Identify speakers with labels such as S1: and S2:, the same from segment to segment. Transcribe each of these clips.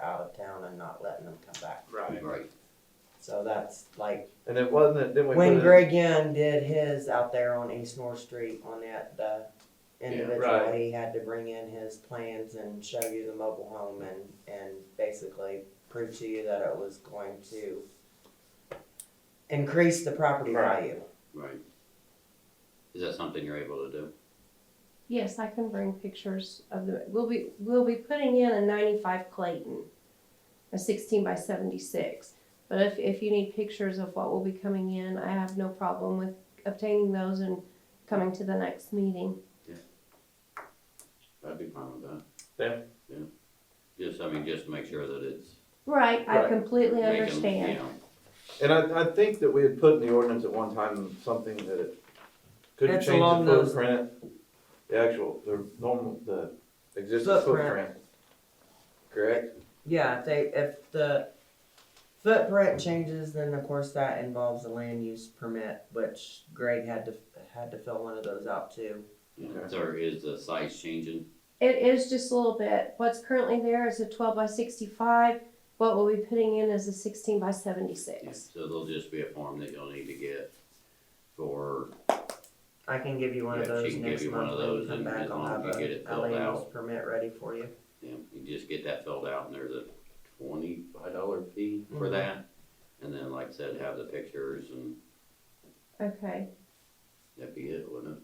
S1: out of town and not letting them come back.
S2: Right.
S3: Right.
S1: So that's like,
S4: And it wasn't, didn't we?
S1: when
S4: put it-
S1: Greg Young did his out there on East North Street on that, the individual,
S4: right.
S1: he had to bring in his plans and show you the mobile home and, and basically prove to you that it was going to increase the property
S2: Right.
S1: value.
S3: Right. Is that something you're able to do?
S5: Yes, I can bring pictures of the, we'll be, we'll be putting in a ninety-five Clayton, a sixteen by seventy-six. But if, if you need pictures of what will be coming in, I have no problem with obtaining those and coming to the next meeting.
S3: I'd be fine with that.
S4: Yeah.
S3: Yeah. Just, I mean, just to make sure that it's.
S5: Right, I
S4: Right.
S5: completely
S3: making, you
S5: understand.
S3: know,
S4: And I, I think that we had put in the ordinance at one time something that it couldn't
S1: It's
S4: change
S1: along
S4: the
S1: those-
S4: footprint, the actual, the normal, the existing
S1: Footprint.
S4: footprint. Correct?
S1: Yeah, if they, if the footprint changes, then of course that involves a land use permit, which Greg had to, had to fill one of those out too.
S3: you know,
S4: Okay.
S3: So is the size changing?
S5: It is just a little bit, what's currently there is a twelve by sixty-five, what we'll be putting in is a sixteen by
S3: Yeah.
S5: seventy-six.
S3: So there'll just be a form that you'll need to get for,
S1: I can give you one of
S3: Yeah, she
S1: those
S3: can give
S1: next
S3: you one
S1: month
S3: of
S1: when you
S3: those
S1: come
S3: and
S1: back,
S3: as
S1: I'll
S3: long as
S1: have
S3: you get it
S1: a a
S3: filled
S1: land use
S3: out.
S1: permit ready for you.
S3: you know, you just get that filled out and there's a twenty-five dollar fee for
S1: Mhm.
S3: that. And then, like I said, have the pictures and
S5: Okay,
S3: that'd be it, wouldn't it?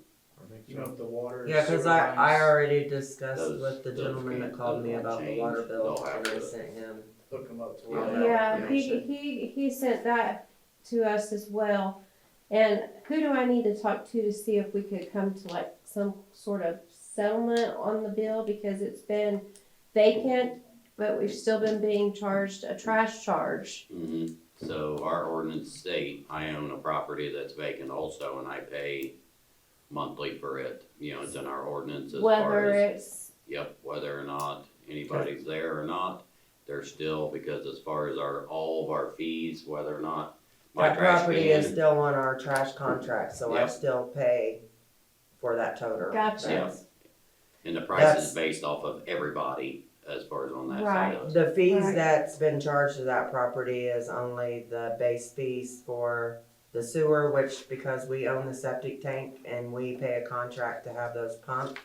S2: You know, if the water.
S1: Yeah, cause I, I already discussed
S3: Those-
S1: with the
S3: those
S1: gentleman that
S3: can't-
S1: called
S3: those
S1: me
S3: won't
S1: about the
S3: change.
S1: water bill
S3: They'll have
S1: and I
S3: to-
S1: sent him.
S2: Hook them up to
S3: Yeah.
S2: where.
S5: yeah, he,
S1: information.
S5: he, he sent that to us as well. And who do I need to talk to to see if we could come to like some sort of settlement on the bill? Because it's been vacant, but we've still been being charged a trash charge.
S3: Mhm. So our ordinance state, I own a property that's vacant also and I pay monthly for it. You know, it's in our ordinance as far
S5: Whether
S3: as,
S5: it's
S3: yep, whether or not anybody's there or not, they're still, because as far as our, all of our fees, whether or not my
S1: That
S3: trash
S1: property is
S3: can,
S1: still on our trash contract, so I
S3: Yep.
S1: still pay for that toter.
S5: Gotcha.
S1: That's-
S3: and the price
S1: that's-
S3: is based off of everybody as far as on that side of it.
S1: The fees
S5: Right.
S1: that's been charged to that property is only the base fees for the sewer, which because we own the septic tank and we pay a contract to have those pumped.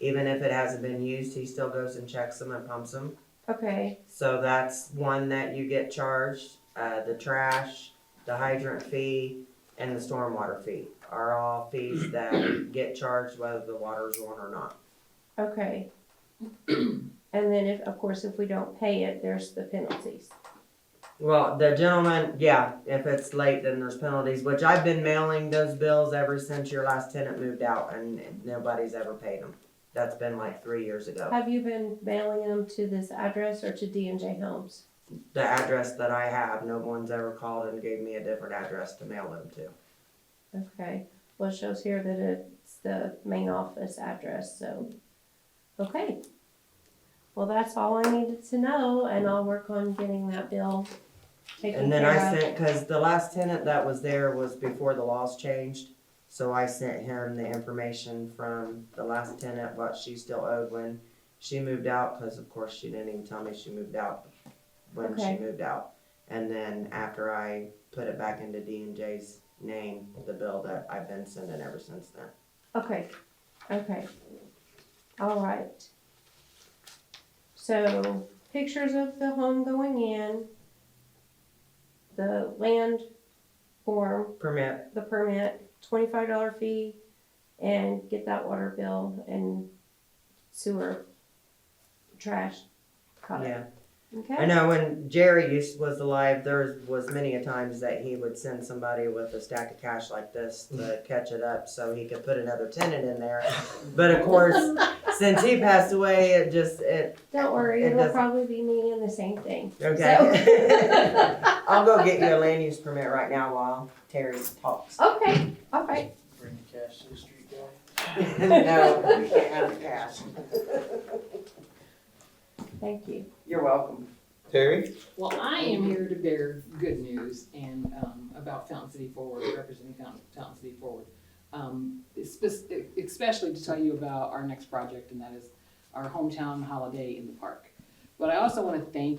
S1: Even if it hasn't been used, he still goes and checks them and pumps them.
S5: Okay,
S1: So that's one that you get charged. Uh, the trash, the hydrant fee, and the stormwater fee are all fees that get charged whether the water's on or not.
S5: okay. And then if, of course, if we don't pay it, there's the penalties.
S1: Well, the gentleman, yeah, if it's late, then there's penalties, which I've been mailing those bills ever since your last tenant moved out and nobody's ever paid them. That's been like three years ago.
S5: Have you been mailing them to this address or to D and J Homes?
S1: The address that I have, no one's ever called and gave me a different address to mail them to.
S5: Okay, well, it shows here that it's the main office address, so, okay. Well, that's all I needed to know, and I'll work on getting that bill taken
S1: And then I
S5: care of.
S1: sent, cause the last tenant that was there was before the laws changed. So I sent him the information from the last tenant, what she still owed when she moved out, cause of course she didn't even tell me she moved out when she
S5: Okay.
S1: moved out. And then after I put it back into D and J's name, the bill that I've been sending ever since then.
S5: Okay, okay. All right. So, pictures of the home going in, the land form,
S1: Permit,
S5: the permit, twenty-five dollar fee, and get that water bill and sewer trash caught.
S1: yeah. I
S5: Okay?
S1: know when Jerry used, was alive, there was many a times that he would send somebody with a stack of cash like this to catch it up so he could put another tenant in there. But of course, since he passed away, it just, it,
S5: Don't worry,
S1: It
S5: it'll
S1: doesn't-
S5: probably be me and the same thing.
S1: okay.
S5: So-
S1: I'll go get you a land use permit right now while Terry talks.
S5: Okay, all right.
S2: Bring the cash to the street guy.
S1: No, we can't have cash.
S5: Thank you.
S1: You're welcome.
S4: Terry?
S6: Well, I am here to bear good news and, um, about Fountain City Forward, representing Fountain, Fountain City Forward. Um, espe- especially to tell you about our next project, and that is our hometown holiday in the park. But I also wanna thank